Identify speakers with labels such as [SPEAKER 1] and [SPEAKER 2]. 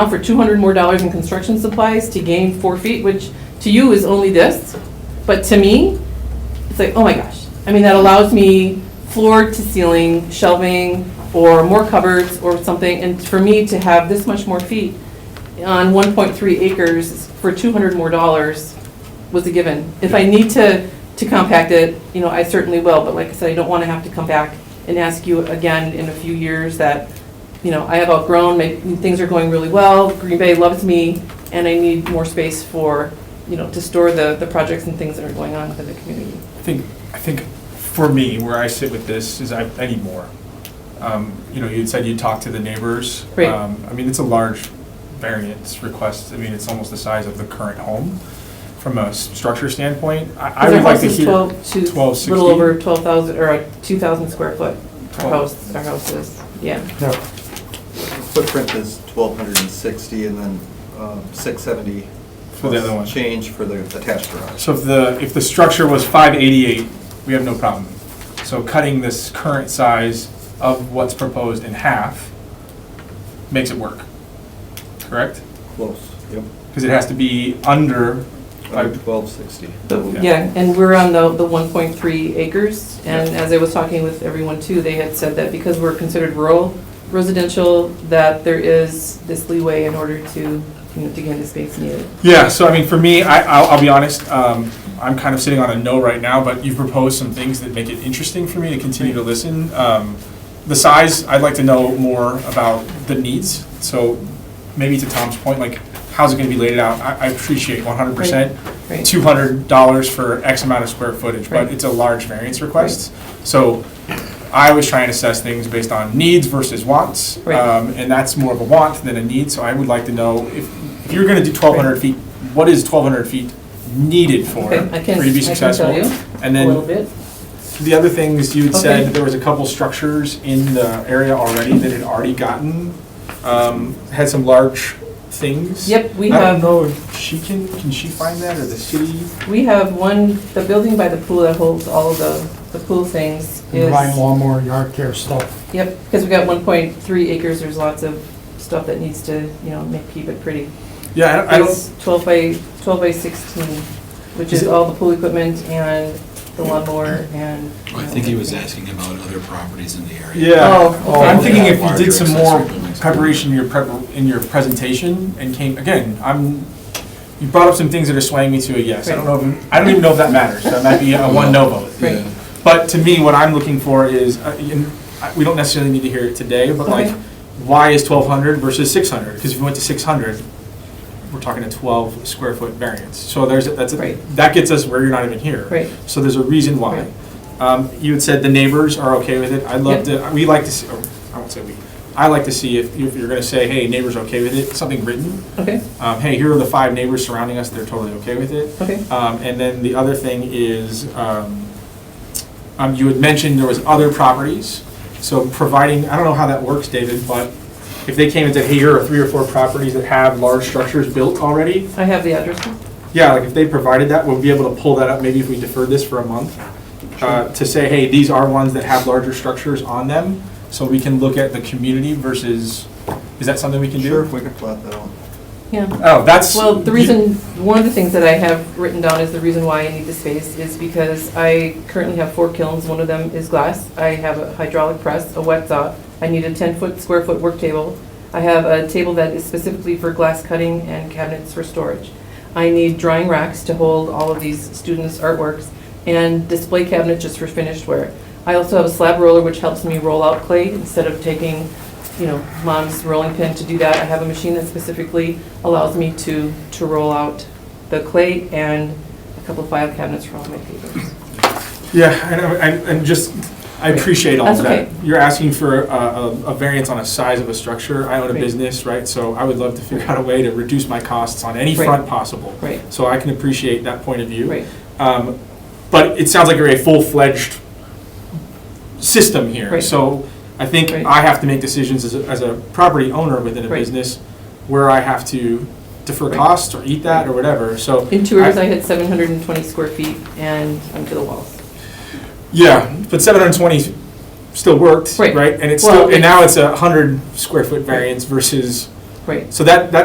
[SPEAKER 1] for two hundred more dollars in construction supplies to gain four feet, which to you is only this, but to me, it's like, oh my gosh. I mean, that allows me floor to ceiling shelving or more cupboards or something, and for me to have this much more feet on one point three acres for two hundred more dollars was a given. If I need to, to compact it, you know, I certainly will, but like I said, I don't want to have to come back and ask you again in a few years that, you know, I have outgrown, my- things are going really well, Green Bay loves me, and I need more space for, you know, to store the, the projects and things that are going on within the community.
[SPEAKER 2] I think, I think for me, where I sit with this is I, I need more. Um, you know, you said you talked to the neighbors.
[SPEAKER 1] Right.
[SPEAKER 2] Um, I mean, it's a large variance request. I mean, it's almost the size of the current home from a s- structure standpoint. I, I
[SPEAKER 1] Because
[SPEAKER 2] would
[SPEAKER 1] our
[SPEAKER 2] like
[SPEAKER 1] house
[SPEAKER 2] to
[SPEAKER 1] is
[SPEAKER 2] hear.
[SPEAKER 1] 12 to-
[SPEAKER 2] 1260.
[SPEAKER 1] Little over twelve thousand, or uh, two thousand square foot, our
[SPEAKER 2] Twelve.
[SPEAKER 1] house, our house is, yeah.
[SPEAKER 3] No,
[SPEAKER 4] Footprint is twelve hundred and sixty, and then um, six seventy.
[SPEAKER 2] For the other one.
[SPEAKER 4] Change for the attached garage.
[SPEAKER 2] So if the, if the structure was five eighty-eight, we have no problem. So cutting this current size of what's proposed in half makes it work, correct?
[SPEAKER 4] Close, yep.
[SPEAKER 2] Because it has to be under,
[SPEAKER 4] Under twelve sixty.
[SPEAKER 1] So,
[SPEAKER 2] Yeah.
[SPEAKER 1] Yeah, and we're on the, the one point three acres, and
[SPEAKER 2] Yeah.
[SPEAKER 1] as I was talking with everyone too, they had said that because we're considered rural residential, that there is this leeway in order to, you know, to gain the space needed.
[SPEAKER 2] Yeah, so I mean, for me, I, I'll, I'll be honest, um, I'm kind of sitting on a no right now, but you've proposed some things that make it interesting for me to continue to listen. Um, the size, I'd like to know more about the needs, so maybe to Tom's point, like, how's it gonna be laid out? I, I appreciate one hundred percent,
[SPEAKER 1] Right.
[SPEAKER 2] two hundred dollars for X amount of square footage, but
[SPEAKER 1] Right.
[SPEAKER 2] it's a large variance request. So I always try and assess things based on needs versus wants.
[SPEAKER 1] Right.
[SPEAKER 2] Um, and that's more of a want than a need, so I would like to know if, if you're gonna do twelve hundred feet, what is twelve hundred feet needed for, for
[SPEAKER 1] Okay, I can-
[SPEAKER 2] you to be
[SPEAKER 1] I can
[SPEAKER 2] successful?
[SPEAKER 1] tell you
[SPEAKER 2] And
[SPEAKER 1] a little
[SPEAKER 2] then,
[SPEAKER 1] bit.
[SPEAKER 2] the other things, you had
[SPEAKER 1] Okay.
[SPEAKER 2] said that there was a couple structures in the area already that had already gotten, um, had some large things.
[SPEAKER 1] Yep, we
[SPEAKER 2] I don't
[SPEAKER 1] have,
[SPEAKER 2] know if she can, can she find that, or the city?
[SPEAKER 1] we have one, the building by the pool that holds all of the, the pool things is.
[SPEAKER 3] combine lawnmower, yard care stuff.
[SPEAKER 1] Yep, because we got one point three acres, there's lots of stuff that needs to, you know, make, keep it pretty.
[SPEAKER 2] Yeah, I don't- I don't,
[SPEAKER 1] It's twelve by, twelve by sixteen, which
[SPEAKER 2] Is
[SPEAKER 1] is
[SPEAKER 2] it-
[SPEAKER 1] all the pool equipment and the lawnmower and. you
[SPEAKER 5] I
[SPEAKER 1] know,
[SPEAKER 5] think he was
[SPEAKER 1] everything.
[SPEAKER 5] asking about other properties in the area.
[SPEAKER 2] yeah.
[SPEAKER 1] Oh, okay.
[SPEAKER 2] I'm thinking if you
[SPEAKER 5] Larger
[SPEAKER 2] did some more
[SPEAKER 5] accessory buildings.
[SPEAKER 2] preparation in your prep, in your presentation and came, again, I'm, you brought up some things that are swaying me to a yes. I don't know, if I don't even know if that matters. That might be a one no vote.
[SPEAKER 1] Right.
[SPEAKER 5] Yeah.
[SPEAKER 2] But to me, what I'm looking for is, uh, and I- we don't necessarily need to hear it today, but like,
[SPEAKER 1] Okay.
[SPEAKER 2] why is twelve hundred versus six hundred? Because if we went to six hundred, we're talking a twelve square foot variance. So there's, that's, a-
[SPEAKER 1] Right.
[SPEAKER 2] that gets us where you're not even here.
[SPEAKER 1] Right.
[SPEAKER 2] So there's a reason
[SPEAKER 1] Right.
[SPEAKER 2] why. Um, You had said the neighbors are okay with it. I'd love
[SPEAKER 1] Yep.
[SPEAKER 2] to, we like to, see. oh, I won't say we, I like to see if if you're going to say, hey, neighbors are okay with it, something written.
[SPEAKER 1] Okay,
[SPEAKER 2] Um, Hey, here are the five neighbors surrounding us, they're totally okay with it.
[SPEAKER 1] okay.
[SPEAKER 2] Um, And then the other thing is, um, um, you had mentioned there was other properties, so providing, I don't know how that works, David, but if they came and said, hey, here are three or four properties that have large structures built already,
[SPEAKER 1] I have the address.
[SPEAKER 2] yeah, like if they provided that, we'll be able to pull that up, maybe if we deferred this for a month, uh, to say, hey, these are ones that have larger structures on them, so we can look at the community versus, is that something we can do?
[SPEAKER 4] Sure, we can plot that out.
[SPEAKER 1] Yeah.
[SPEAKER 2] Oh, that's.
[SPEAKER 1] Well, the reason, one of the things that I have written down is the reason why I need the space is because I currently have four kilns. One of them is glass. I have a hydraulic press, a wet saw. I need a 10-foot, square-foot work table. I have a table that is specifically for glass cutting and cabinets for storage. I need drying racks to hold all of these students' artworks and display cabinets just for finished ware. I also have a slab roller which helps me roll out clay instead of taking, you know, mom's rolling pin to do that. I have a machine that specifically allows me to, to roll out the clay and a couple file cabinets for all my papers.
[SPEAKER 2] Yeah, I know, and, and just, I appreciate all of
[SPEAKER 1] That's
[SPEAKER 2] that.
[SPEAKER 1] okay.
[SPEAKER 2] You're asking for a, a a variance on a size of a structure. I own a
[SPEAKER 1] Right.
[SPEAKER 2] business, right? So I would love to figure out a way to reduce my costs on any
[SPEAKER 1] Right.
[SPEAKER 2] front possible.
[SPEAKER 1] Right,
[SPEAKER 2] So I can appreciate that point of view.
[SPEAKER 1] right.
[SPEAKER 2] Um, But it sounds like you're a full-fledged system here.
[SPEAKER 1] Right.
[SPEAKER 2] So I think
[SPEAKER 1] Right.
[SPEAKER 2] I have to make decisions as a, as a property owner within a
[SPEAKER 1] Right.
[SPEAKER 2] business where I have to defer
[SPEAKER 1] Right.
[SPEAKER 2] costs or eat that or whatever, so.
[SPEAKER 1] In two hours, I had 720 square feet and under the walls.
[SPEAKER 2] Yeah, but seven hundred and twenty still worked,
[SPEAKER 1] Right.
[SPEAKER 2] right? And it's
[SPEAKER 1] Well,
[SPEAKER 2] still, and
[SPEAKER 1] it's-
[SPEAKER 2] now it's a hundred square foot variance versus
[SPEAKER 1] Right.
[SPEAKER 2] So that, that